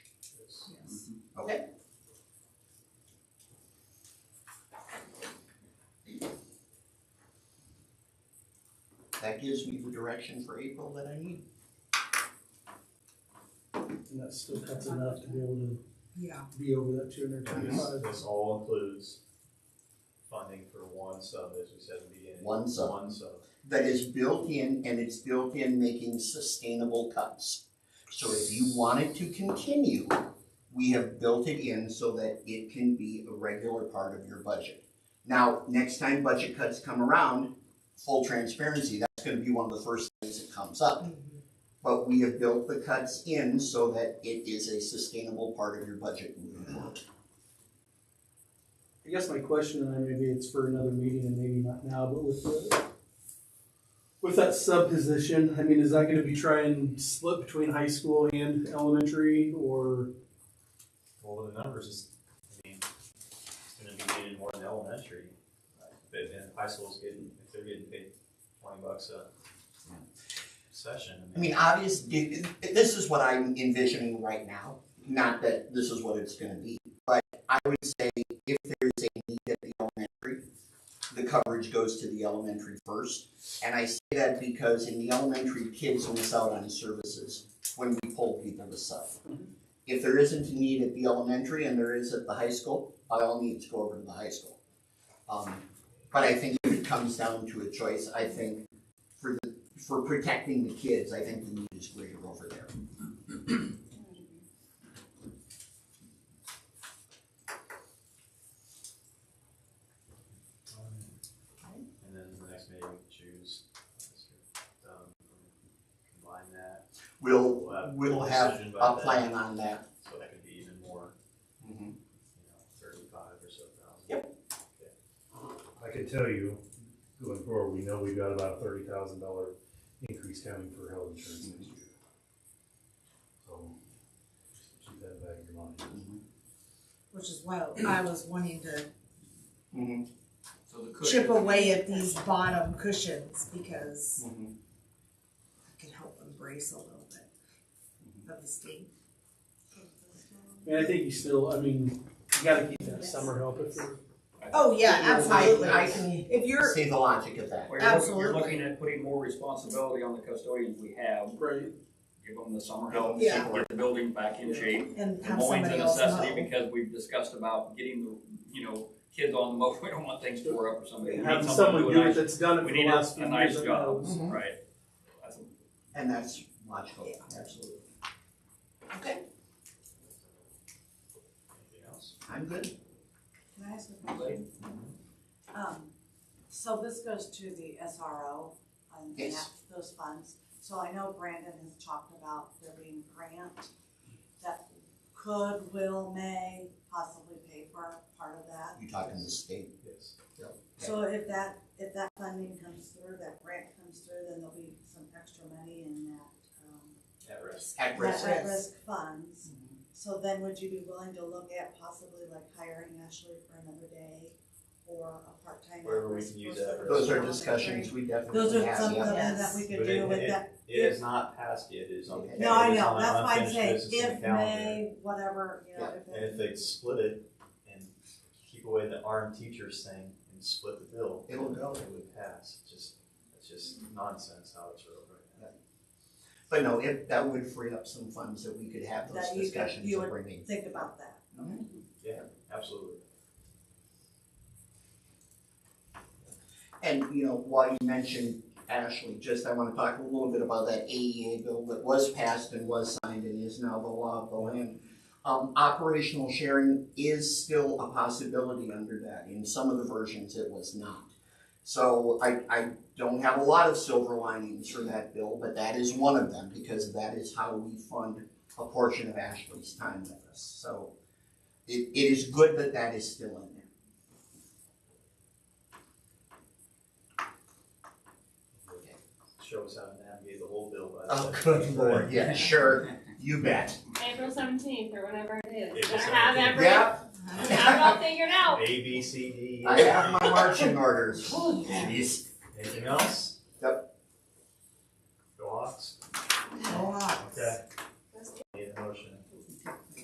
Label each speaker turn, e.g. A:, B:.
A: that gives me the direction for April that I need.
B: And that still cuts enough to be able to
C: Yeah,
B: be over that two
D: And
B: hundred
D: This,
B: twenty-five.
D: this all includes funding for one sub, as we said at the beginning.
A: One sub.
D: One sub.
A: That is built in and it's built in making sustainable cuts. So if you wanted to continue, we have built it in so that it can be a regular part of your budget. Now, next time budget cuts come around, full transparency, that's gonna be one of the first things that comes up. But we have built the cuts in so that it is a sustainable part of your budget moving forward.
B: I guess my question, and then maybe it's for another meeting and maybe not now, but with the, with that sub position, I mean, is that gonna be trying to split between high school and elementary or?
D: Well, the numbers is, I mean, it's gonna be needed more in elementary. But then high school's getting, if they're getting paid twenty bucks a session,
A: I mean, obviously, this is what I'm envisioning right now, not that this is what it's gonna be, but I would say if there's a need at the elementary, the coverage goes to the elementary first. And I say that because in the elementary, kids miss out on services when we pull people to sub. If there isn't a need at the elementary and there is at the high school, by all means, go over to the high school. Um, but I think if it comes down to a choice, I think for the for protecting the kids, I think the need is greater over there.
D: And then the next meeting, we choose, um, combine that,
A: We'll, uh,
D: we'll have.
A: we'll have
D: decision by
A: a
D: then,
A: plan on that.
D: So that could be even more, you know, thirty-five or so thousand.
A: Yep.
E: I can tell you, going forward, we know we've got about a thirty thousand dollar increase coming for health insurance next year. So, just keep that in the back of your mind.
C: which is why
A: Mm.
C: I was wanting to
A: Mm-hmm.
F: So the
C: chip
F: cushion,
C: away at these bottom cushions because
A: Mm-hmm.
C: I can help embrace a little bit
A: Mm-hmm.
C: of the state.
B: And I think you still, I mean, you gotta keep that summer help if you're
C: Oh, yeah, absolutely.
A: I, I can
C: If you're,
A: see the logic of that.
F: well, you're looking,
C: Absolutely.
F: you're looking at putting more responsibility on the custodians we have,
B: right.
F: give them the summer help,
C: Yeah.
F: get the building back in shape.
C: and
F: The
C: have
F: mowing's a
C: somebody else
F: necessity
C: mow.
F: because we've discussed about getting the, you know, kids on the mow, we don't want things tore up or something. We need
B: Have
F: someone
B: someone
F: to do a
B: do it
F: nice-
B: that's done it
F: We
B: for the
F: need a,
B: last few
F: a
B: years. Mm-hmm.
F: nice
B: and
F: job,
B: knows.
A: Mhm.
F: right? That's a-
A: And that's logical,
C: Yeah.
A: absolutely. Okay,
D: Anything else?
A: I'm good.
G: Can I ask a question? Um, so this goes to the SRO um, and
A: Yes.
G: that- those funds. So I know Brandon has talked about there being a grant that could, will, may possibly pay for part of that.
A: You talking the state?
D: Yes.
G: So if that, if that funding comes through, that grant comes through, then there'll be some extra money in that, um,
D: At risk.
A: At risk. Mm-hmm.
G: that at-risk funds. So then would you be willing to look at possibly like hiring Ashley for another day or a part-time?
D: Wherever we
G: at-risk
D: can use
G: person?
D: that
A: Those are discussions we
G: Those
A: definitely
G: are
A: have,
G: some of
A: yeah.
G: them that
C: Yes.
G: we could
D: But it-
G: do with
D: it-
G: that.
D: It is not passed yet, it is on.
A: Okay.
G: No, I
D: it is
G: know,
D: on
G: that's why I'm
D: unfinished
G: saying
D: business in the
G: if,
D: calendar.
G: may, whatever, you know, if.
D: And if they split it and keep away the armed teachers thing and split the bill.
A: It'll go.
D: It would pass, It's just, it's just nonsense how it's wrote right now.
A: But no, if, that would free up some funds that we could have those
G: That you could-
A: discussions
G: you
A: and
G: would-
A: bring in.
G: Think about that.
D: Absolutely.
A: And, you know, while you mentioned Ashley, just I wanna talk a little bit about that AEA bill that was passed and was signed and is now the law of the land. Um, operational sharing is still a possibility under that. In some of the versions, it was not. So I, I don't have a lot of silver linings for that bill, but that is one of them because that is how we fund a portion of Ashley's time with us. So it, it is good that that is still in there.
D: Show us how to navigate the whole bill by.
A: Oh, good lord, yeah, sure, you bet.
H: April seventeenth or whenever it is.
D: April
H: I have
D: 17th.
H: every,
A: Yeah,
H: I have it all figured out.
D: A, B, C, D, E,
A: I have my marching orders. Jeez.
D: anything else?